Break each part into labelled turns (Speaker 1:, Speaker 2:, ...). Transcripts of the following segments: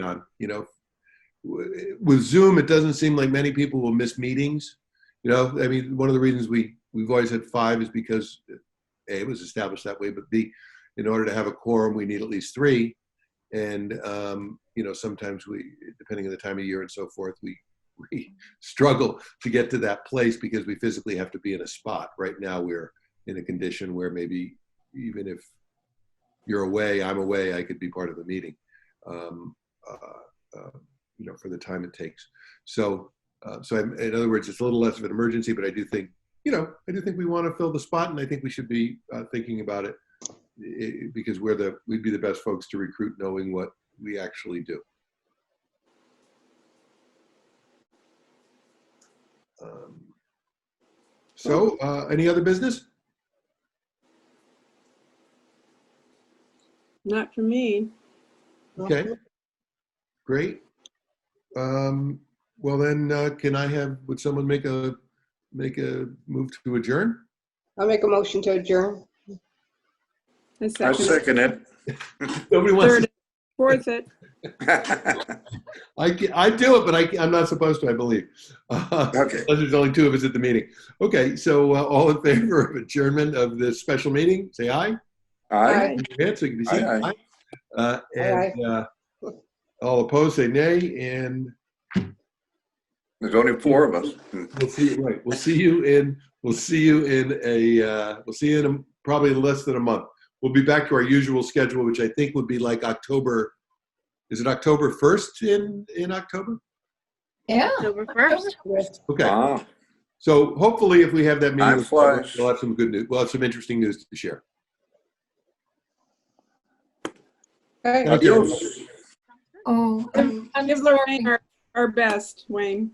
Speaker 1: on. You know, W- with Zoom, it doesn't seem like many people will miss meetings. You know, I mean, one of the reasons we we've always had five is because a it was established that way, but b in order to have a quorum, we need at least three. And um, you know, sometimes we, depending on the time of year and so forth, we we struggle to get to that place because we physically have to be in a spot. Right now, we're in a condition where maybe even if you're away, I'm away, I could be part of a meeting. Um, uh, uh, you know, for the time it takes. So, uh, so I'm, in other words, it's a little less of an emergency, but I do think, you know, I do think we want to fill the spot, and I think we should be uh, thinking about it, eh, because we're the we'd be the best folks to recruit, knowing what we actually do. Um, so, uh, any other business?
Speaker 2: Not for me.
Speaker 1: Okay. Great. Um, well then, uh, can I have, would someone make a, make a move to adjourn?
Speaker 3: I'll make a motion to adjourn.
Speaker 2: I
Speaker 4: I
Speaker 2: second.
Speaker 4: second it.
Speaker 1: Nobody wants to
Speaker 2: Third, fourth it.
Speaker 1: I, ca- I do it, but I, ca- I'm not supposed to, I believe. Uh,
Speaker 4: Okay,
Speaker 1: Unless there's only two of us at the meeting. Okay, so uh, all in favor of adjournment of this special meeting, say aye.
Speaker 3: Aye.
Speaker 4: aye.
Speaker 1: Yeah, so you can be seen.
Speaker 4: Aye, aye.
Speaker 1: Uh, and uh, all opposed, say nay. And
Speaker 4: There's only four of us.
Speaker 1: we'll see. Right, we'll see you in. We'll see you in a. Uh, we'll see you in a, probably less than a month. We'll be back to our usual schedule, which I think would be like October. Is it October first in in October?
Speaker 3: Yeah.
Speaker 2: October first.
Speaker 1: Okay.
Speaker 4: Ah,
Speaker 1: So hopefully, if we have that meeting,
Speaker 4: Time flies.
Speaker 1: we'll have some good news. We'll have some interesting news to share.
Speaker 3: Alright.
Speaker 1: Okay.
Speaker 4: Adios.
Speaker 5: Oh, I'm, I'm
Speaker 2: Give
Speaker 5: sorry.
Speaker 2: Lorraine our, Um, our best, Wayne.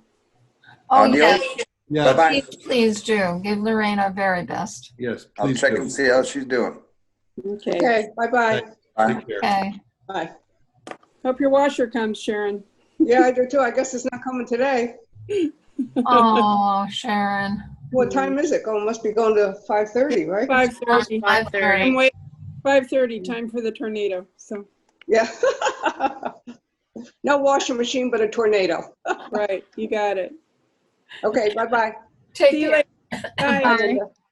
Speaker 5: Oh,
Speaker 4: Adios.
Speaker 5: yes,
Speaker 1: Yeah.
Speaker 4: Bye-bye.
Speaker 5: please, please do. Give Lorraine our very best.
Speaker 1: Yes.
Speaker 4: I'll
Speaker 1: Please
Speaker 4: check
Speaker 1: do.
Speaker 4: and see how she's doing.
Speaker 2: Okay.
Speaker 3: Okay, bye-bye.
Speaker 4: Bye.
Speaker 1: Take care.
Speaker 5: Okay.
Speaker 3: Bye.
Speaker 2: Hope your washer comes, Sharon.
Speaker 3: Yeah, I do too. I guess it's not coming today.
Speaker 5: Oh, Sharon.
Speaker 3: What time is it? Oh, it must be going to 5:30, right?
Speaker 2: Five thirty.
Speaker 5: Five
Speaker 2: I'm
Speaker 5: thirty.
Speaker 2: wait. Five thirty. Time for the tornado. So
Speaker 3: Yeah. No washing machine, but a tornado.
Speaker 2: right, you got it.
Speaker 3: Okay, bye-bye.
Speaker 5: Take
Speaker 2: See you
Speaker 5: care.
Speaker 2: later. Bye.
Speaker 5: Bye.
Speaker 3: Bye.